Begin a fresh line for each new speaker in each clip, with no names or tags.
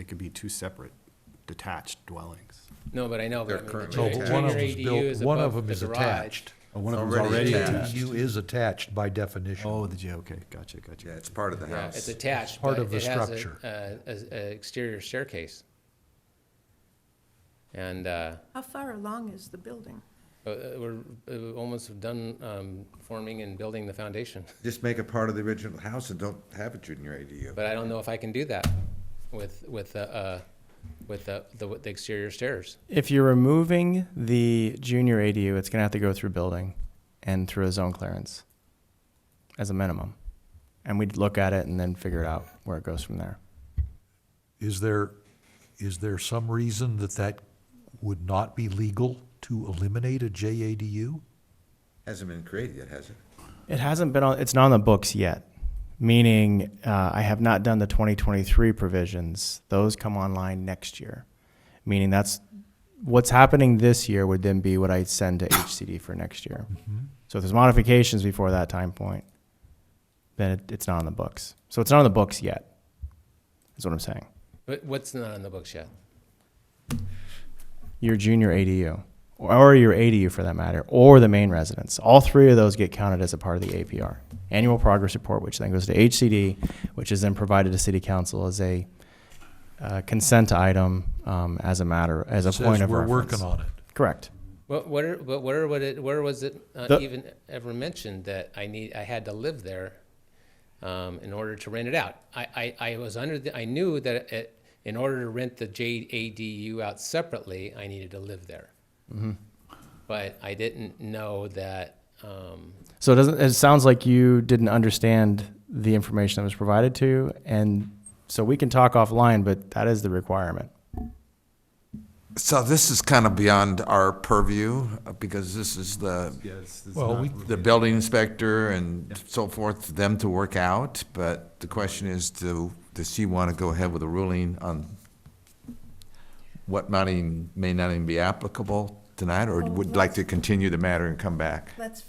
They could be two separate detached dwellings.
No, but I know,
They're
but I mean, the
currently
ju-
No, but one
junior
of
ADU is
One of
above
them
the
is
garage.
attached.
Oh, one of them's
Already
already
The
attached.
attached.
ADU is attached by definition.
Oh, the G, okay, gotcha, gotcha.
Yeah, it's part of the
Yeah,
house.
It's attached,
part
but
of the
it has
structure.
a, a, a- a exterior staircase. And, uh,
How far along is the building?
uh, we're uh, almost done, um, forming and building the foundation.
Just make it part of the original house and don't have a junior ADU.
But I don't know if I can do that with, with, the, uh, with the, the with the exterior stairs.
If you're removing the junior ADU, it's gonna have to go through building and through a zone clearance as a minimum. And we'd look at it and then figure it out where it goes from there.
Is there, is there some reason that that would not be legal to eliminate a JADU?
Hasn't been created yet, has it?
It hasn't been on, it's not on the books yet, meaning uh, I have not done the 2023 provisions. Those come online next year, meaning that's, what's happening this year would then be what I send to HCD for next year. So if there's modifications before that time point, then it, it's not on the books. So it's not on the books yet, is what I'm saying.
But what's not on the books yet?
Your junior ADU, or your ADU for that matter, or the main residence. All three of those get counted as a part of the APR, annual progress report, which then goes to HCD, which is then provided to city council as a uh, consent item um, as a matter, as a point
Says
of
we're
reference.
working on it.
Correct.
What, what are, but where would it, where was it uh,
The-
even ever mentioned that I need, I had to live there um, in order to rent it out? I, I, I was under the, I knew that it, in order to rent the JADU out separately, I needed to live there. But I didn't know that, um,
So it doesn't, it sounds like you didn't understand the information that was provided to you, and so we can talk offline, but that is the requirement.
So this is kind of beyond our purview, uh, because this is the,
Yes.
Well, we-
the building inspector and so forth, for them to work out, but the question is, do, does she want to go ahead with a ruling on what might even, may not even be applicable tonight, or would like to continue the matter and come back?
Let's,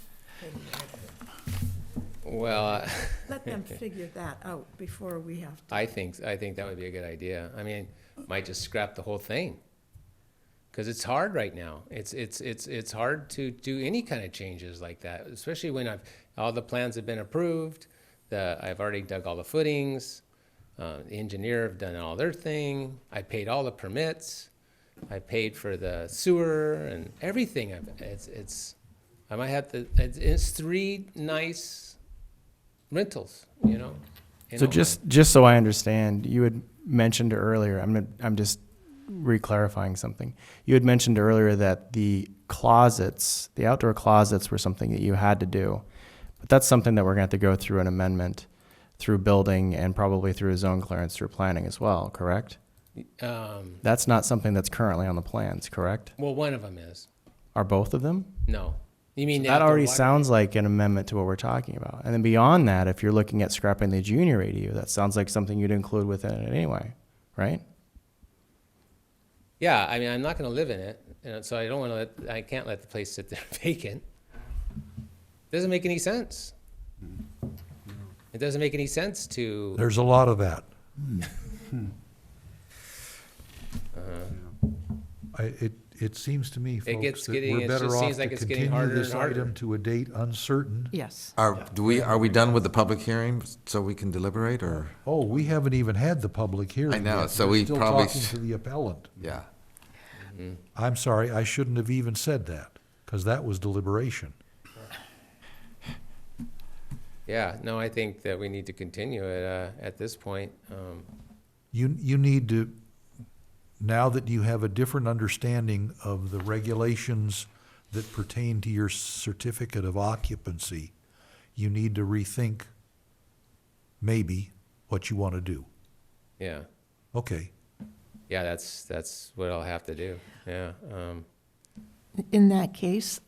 well,
let them figure that out before we have to.
I think, I think that would be a good idea. I mean, might just scrap the whole thing. Cause it's hard right now. It's, it's, it's, it's hard to do any kind of changes like that, especially when I've, all the plans have been approved. The, I've already dug all the footings. Uh, the engineer have done all their thing. I paid all the permits. I paid for the sewer and everything. I've- It's, it's, I might have to, it's, it's three nice rentals, you know? in
So
all my-
just, just so I understand, you had mentioned earlier, I'm, I'm just re-clarifying something. You had mentioned earlier that the closets, the outdoor closets were something that you had to do. But that's something that we're gonna have to go through an amendment through building and probably through a zone clearance through planning as well, correct?
Um,
That's not something that's currently on the plans, correct?
well, one of them is.
Are both of them?
No. You mean
That
outdoor
already
water-
sounds like an amendment to what we're talking about. And then beyond that, if you're looking at scrapping the junior ADU, that sounds like something you'd include within it anyway, right?
Yeah, I mean, I'm not going to live in it, and so I don't want to let. I can't let the place sit there vacant. Doesn't make any sense. It doesn't make any sense to.
There's a lot of that. Hmm. I, it, it seems to me, folks,
gets
that
getting-
we're
it just
better off
seems
to
like it's getting
continue
harder
this
and harder.
item to a date uncertain.
Yes.
Are, do we, are we done with the public hearing, so we can deliberate, or,
Oh, we haven't even had the public hearing.
I know,
yet.
so
We're
we
still
probably
talking
s-
to the appellant.
yeah?
I'm sorry, I shouldn't have even said that, because that was deliberation.
Yeah, no, I think that we need to continue it uh, at this point. Um,
You, you need to, now that you have a different understanding of the regulations that pertain to your certificate of occupancy, you need to rethink maybe what you want to do.
yeah,
Okay,
yeah, that's that's what I'll have to do. Yeah. Um,
In that case,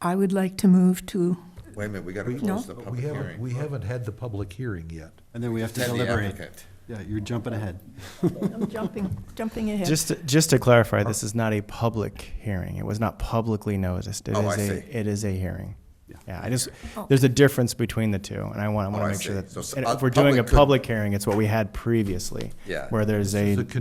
I would like to move to,
Wait a minute, we gotta
No.
close the
we
public
haven't,
hearing.
we haven't had the public hearing yet.
And then we have to
Tell the
deliberate.
applicant.
Yeah, you're jumping ahead.
I'm jumping, jumping ahead.
Just, to- just to clarify, this is not a public hearing. It was not publicly noticed. It
Oh,
is
I
a,
see.
it is a hearing.
Yeah.
Yeah, I just, there's a difference between the two, and I want,
Oh,
I want
I
to make sure
see.
that,
So s-
and
a
if we're doing a
public could-
public hearing, it's what we had previously.
Yeah.
Where there's a
The con-